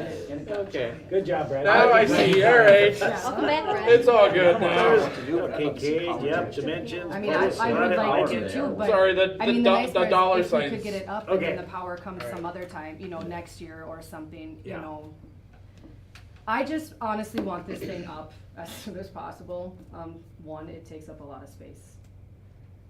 ten. Okay. Good job, Brad. Now I see, all right. I'll come back, Brad. It's all good now. Kincaid, yep, dimensions. I mean, I, put a I would slide like in to there. too, but. Sorry, the, I the, mean, the do- nice the part dollar is if we could get signs. it up and Okay. then the power comes some other time, you know, next year or something, you Yeah. know. I just honestly want this thing up as soon as possible. Um, one, it takes up a lot of space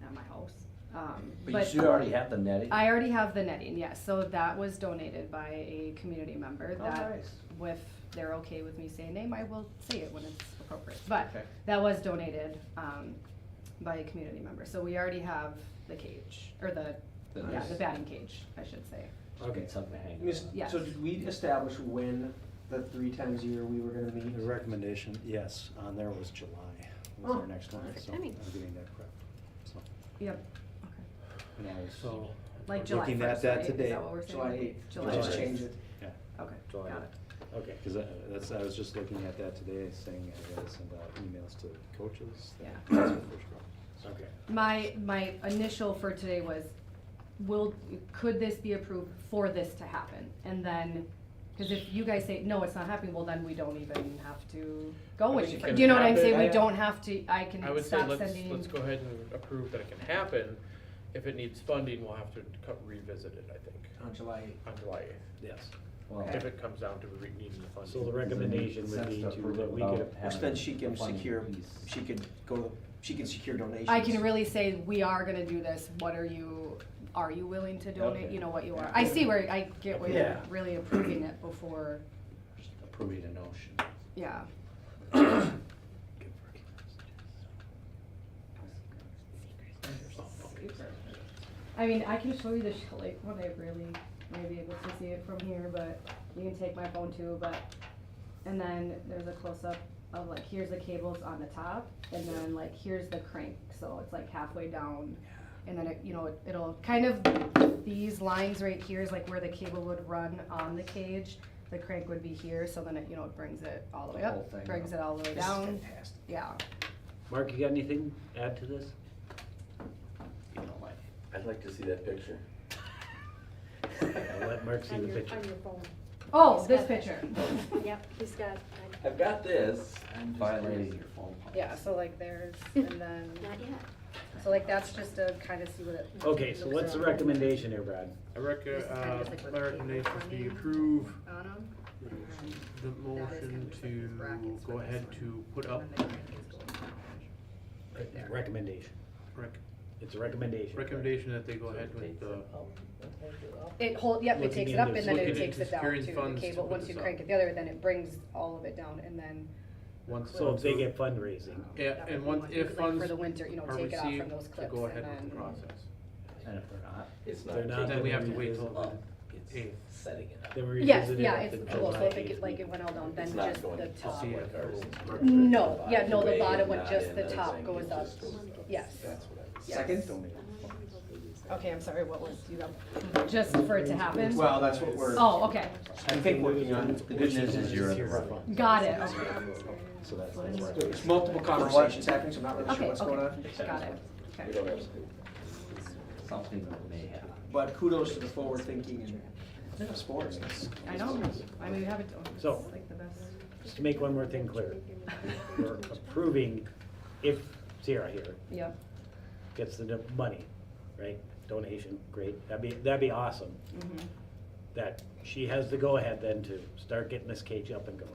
at my house. Um, But you should already have the netting. I already have the netting, yes, so that was donated by a community member Oh, that nice. if they're okay with me saying name, I will say it when it's appropriate, but Okay. that was donated, um, by a community member, so we already have the cage, or the, The yeah, nice- the batting cage, I should say. Okay, Get something to hang Miss- on. Yes. So did we establish when the three times a year we were gonna meet? The recommendation, yes, on there was July, was Oh, their next one, so I'm timing. getting that correct. So, Yep, and I was- so, like July Looking at first, that right, is today. that what we're saying? July eighth, July just first. change it. Okay, July got eighth. it. okay. Cause I, that's, I was just looking at that today, saying I gotta send out emails to coaches. that- Yeah. that's my first problem. Okay. My, my initial for today was, will, could this be approved for this to happen? And then, cause if you guys say, no, it's not happening, well, then we don't even have to go I with think it. it Do you know can what I'm saying? We happen. don't have to, I can I would say stop let's, sending. let's go ahead and approve that it can happen. If it needs funding, we'll have to co- revisit it, I think, On July eighth. on July eighth. Yes. Well, If it comes down to re- needing the funding. So the recommendation would be to, that we could, Which then she can The funding secure, piece. she could go, she can secure donations. I can really say, we are gonna do this, what are you, are you willing to donate, Okay. you know, what you are, I see where, I get where you're Yeah. really approving it before, Approving a notion. yeah. Good for kids. I mean, I can show you the sh- like when I really may be able to see it from here, but you can take my phone too. But and then there's a close up of like here's the cables on the top, and then like here's the crank, so it's like halfway down, and then it you know it, it'll kind of these lines right here is like where the cable would run on the cage. The crank would be here, so then it you know it brings it all the way The whole up, thing brings up. it all the way This is down. fantastic. Yeah. Mark, you got anything to add to this? You don't like it. I'd like to see that picture. I'll let Mark see On the your, on picture. your phone. Oh, He's this got that. picture. Yep, he's got, I've got this. Violating your phone policy. Yeah, so like there's, and then, not yet. so like that's just to kind of see what it. Okay, so looks what's the like recommendation here, Brad? I rec- This is kind of uh, just like what my the recommendation cable is do you funding- approve on 'em, the That is kind motion of just like these brackets to for go this ahead one. to put up and then it keeps going down. Right there. Recommendation. rec- It's a recommendation. recommendation that they go ahead with the, It hold, yep, it Looking takes it up into- and then it looking takes into it down securing to the funds to cable, put once you this up. crank it the other, then it brings all of it down and then. once. So if they get fundraising, Yeah, that and would be once, like if funds For the winter, you know, are take it off from received, those to clips go and ahead with the then. process. And if they're not, It's They're not not. Then we have to wait It's till, up. It's Eighth. setting it up. then we Yes, revisit it yeah, at the it's, well, so July if it, get- like 8th it went all down, It's then not just going the to top. see would it. go. No, yeah, no, the Way bottom would not just- in the that top thing. goes It's up. just- Yes. That's what I was. Second? Okay, I'm sorry, what was, you got, just for it to happen? Well, that's what we're, Oh, okay, I think working on, the good news is you're in the right. got it, okay. Oh, So that's, that's where I- there's multiple conversations happening, so I'm not really sure Okay, what's going okay. on. Got it. We Okay. don't have to. something that may happen. But kudos to the forward thinking in sports. That's- I know. I mean, we have it. oh, it's So- like the best. Just to make one more thing clear, we're approving if Sierra here Yep. gets the do- money, right? Donation, great, that'd be, that'd be awesome, mhm. that she has the go-ahead then to start getting this cage up and going.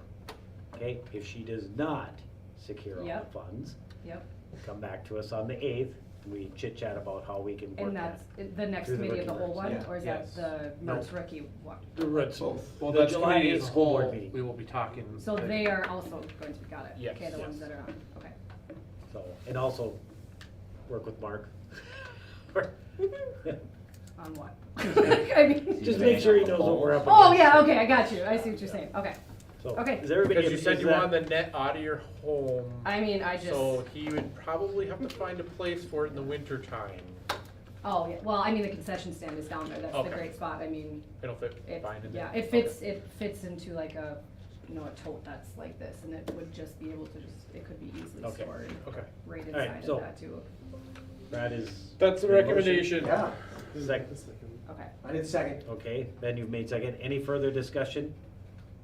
Okay, if she does not secure all the Yep. funds, Yep. come back to us on the eighth, we chit-chat about how we can work And that. that's it- the next Through the committee of the rookie whole ranks, yeah. one, or is that Yes. the No. most rookie one? The roots, Well, The that's July committee as eighth a school board whole, meeting. we will be talking. So like, they are also going to be, got it? Yes, Okay, the yes. ones that are on, okay. so, and also work with Mark. On what? I mean, Just make sure he knows what we're up against. oh, yeah, okay, I got you. I see what you're saying. Okay. So, Okay. Is everybody? Because you is said you that- wanted the net out of your home. I mean, I just, So oh, he would probably have to find a place for it in the winter time. Oh, yeah, well, I mean, the concession stand is down there. That's the Okay. great spot. I mean, It'll fit it, fine in there. yeah, it fits, it fits into like a, you know, a tote that's like this and it would just be able to just, it could be easily Okay. stored Okay. Okay. right All right, inside so- of that too. That is. That's the your motion. recommendation. Yeah, Second, Okay. I did second. okay, then you've made second. Any further discussion?